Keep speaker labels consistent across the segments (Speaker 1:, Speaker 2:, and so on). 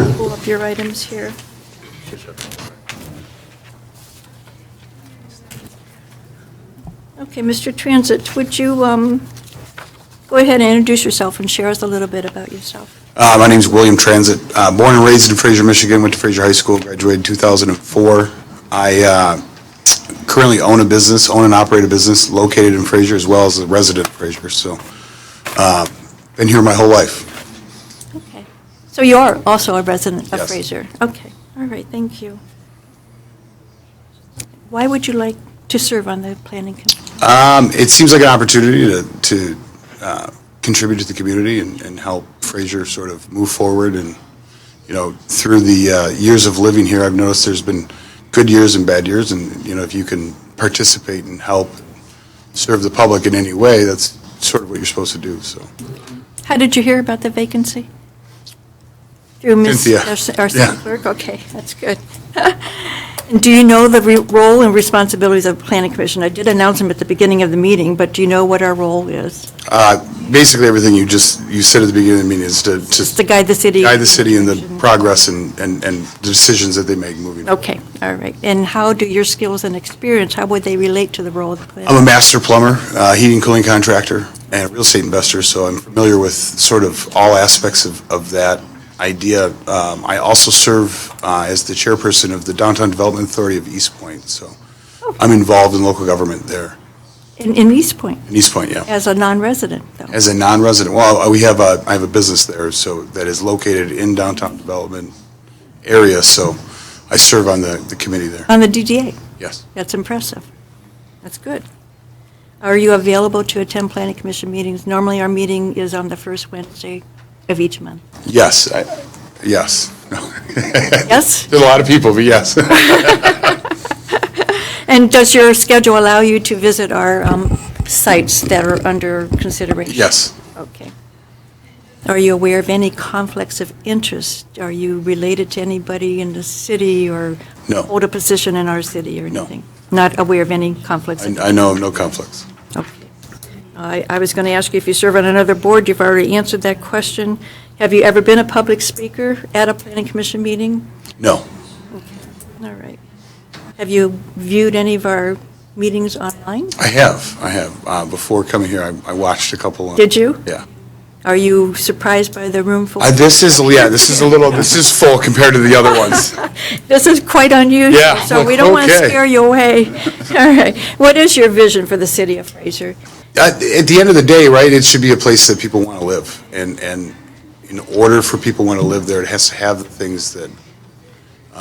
Speaker 1: up your items here. Okay, Mr. Transit, would you um, go ahead and introduce yourself and share us a little bit about yourself?
Speaker 2: Uh, My name's William Transit. Uh, Born and raised in Fraser, Michigan, went to Fraser High School, graduated 2004. I uh, currently own a business, own and operate a business located in Fraser as well as a resident of Fraser, so uh, been here my whole life.
Speaker 1: Okay. So you are also a resident of
Speaker 2: Yes.
Speaker 1: Fraser? Okay, all right, thank you. Why would you like to serve on the planning committee?
Speaker 2: Um, It seems like an opportunity to- to uh, contribute to the community and and help Fraser sort of move forward and, you know, through the uh, years of living here, I've noticed there's been good years and bad years, and, you know, if you can participate and help serve the public in any way, that's sort of what you're supposed to do, so.
Speaker 1: How did you hear about the vacancy? Through Ms.
Speaker 2: Cynthia.
Speaker 1: our- our
Speaker 2: Yeah.
Speaker 1: city clerk? Okay, that's good. And Do you know the re- role and responsibilities of the planning commission? I did announce them at the beginning of the meeting, but do you know what our role is?
Speaker 2: uh, Basically, everything you just, you said at the beginning of the meeting is to
Speaker 1: Just to
Speaker 2: to
Speaker 1: guide the city?
Speaker 2: guide the city in the
Speaker 1: commission?
Speaker 2: progress and and and the decisions that they make moving. forward.
Speaker 1: Okay, all right. And how do your skills and experience, how would they relate to the role of the planning?
Speaker 2: I'm a master plumber, uh, heating and cooling contractor, and real estate investor, so I'm familiar with sort of all aspects of, of that idea. Um, I also serve uh, as the chairperson of the Downtown Development Authority of East Point, so I'm involved in local government there,
Speaker 1: In in East Point,
Speaker 2: in East Point, yeah.
Speaker 1: as a non-resident, though?
Speaker 2: As a non-resident, well, we have a, I have a business there, so that is located in downtown development area, so I serve on the, the committee there,
Speaker 1: On the DDA?
Speaker 2: yes.
Speaker 1: That's impressive. That's good. Are you available to attend planning commission meetings? Normally, our meeting is on the first Wednesday of each month.
Speaker 2: Yes, I, yes.
Speaker 1: Yes?
Speaker 2: There's a lot of people, but yes.
Speaker 1: And does your schedule allow you to visit our um, sites that are under consideration?
Speaker 2: Yes.
Speaker 1: Okay. Are you aware of any conflicts of interest? Are you related to anybody in the city or
Speaker 2: No.
Speaker 1: hold a position in our city or
Speaker 2: No.
Speaker 1: anything? Not aware of any conflicts? of
Speaker 2: I I know of no conflicts.
Speaker 1: Okay. I I was going to ask you if you serve on another board, you've already answered that question. Have you ever been a public speaker at a planning commission meeting?
Speaker 2: No.
Speaker 1: All right. Have you viewed any of our meetings online?
Speaker 2: I have, I have. Uh, Before coming here, I I watched a couple. on-
Speaker 1: Did you?
Speaker 2: Yeah.
Speaker 1: Are you surprised by the room full?
Speaker 2: Uh, This is, yeah, this is a little, this is full compared to the other ones. Uh,
Speaker 1: This is quite unusual.
Speaker 2: Yeah,
Speaker 1: So we don't want to
Speaker 2: okay.
Speaker 1: scare you away. All right. What is your vision for the city of Fraser?
Speaker 2: At at the end of the day, right, it should be a place that people want to live. And, and in order for people want to live there, it has to have the things that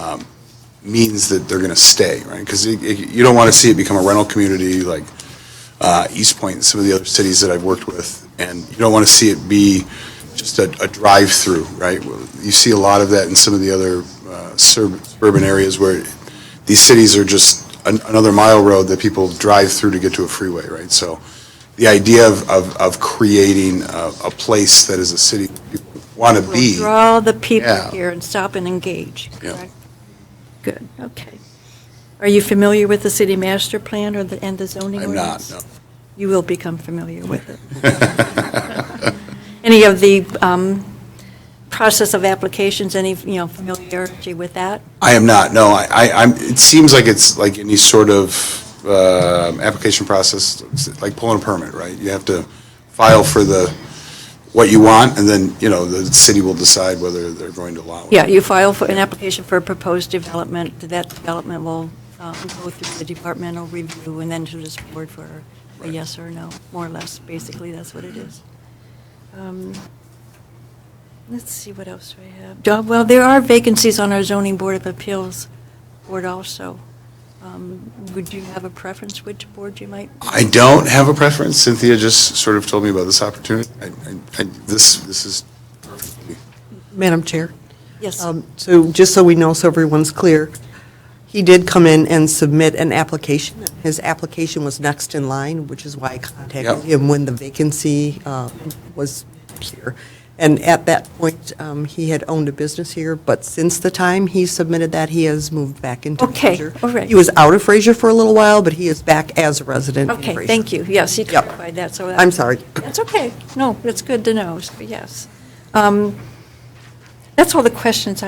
Speaker 2: um, means that they're going to stay, right? Because you don't want to see it become a rental community like uh, East Point and some of the other cities that I've worked with. And you don't want to see it be just a, a drive-through, right? You see a lot of that in some of the other uh, sur- suburban areas where these cities are just an- another mile road that people drive through to get to a freeway, right? So the idea of, of, of creating a, a place that is a city people want to
Speaker 1: We'll
Speaker 2: be.
Speaker 1: draw the people
Speaker 2: Yeah.
Speaker 1: here and stop and engage,
Speaker 2: Yeah.
Speaker 1: correct? Good, okay. Are you familiar with the city master plan or the, and the zoning
Speaker 2: I'm not,
Speaker 1: ordinance?
Speaker 2: no.
Speaker 1: You will become familiar with it. Any of the um, process of applications, any, you know, familiarity with that?
Speaker 2: I am not, no, I, I- I'm, it seems like it's like any sort of um, application process, it's like pulling a permit, right? You have to file for the, what you want, and then, you know, the city will decide whether they're going to allow it.
Speaker 1: Yeah, you file for an application for a proposed development, that development will um, go through the departmental review and then to this board for a
Speaker 2: Right.
Speaker 1: yes or no, more or less, basically, that's what it is. Um, Let's see, what else do I have? Do- Uh, Well, there are vacancies on our zoning board of appeals board also. Um, Would you have a preference which board you might?
Speaker 2: I don't have a preference, Cynthia just sort of told me about this opportunity. I, I, I- this, this is,
Speaker 3: Madam Chair,
Speaker 1: Yes.
Speaker 3: um, so just so we know, so everyone's clear, he did come in and submit an application. His application was next in line, which is why I
Speaker 2: Yep.
Speaker 3: contacted him when the vacancy um, was here. And at that point, um, he had owned a business here, but since the time he submitted that, he has moved back into
Speaker 1: Okay,
Speaker 3: Fraser.
Speaker 1: all right.
Speaker 3: He was out of Fraser for a little while, but he is back as a resident in
Speaker 1: Okay,
Speaker 3: Fraser.
Speaker 1: thank you, yes, you
Speaker 3: Yep.
Speaker 1: clarified that, so. that-
Speaker 3: I'm sorry.
Speaker 1: That's okay. No, it's good to know, yes. Um, That's all the questions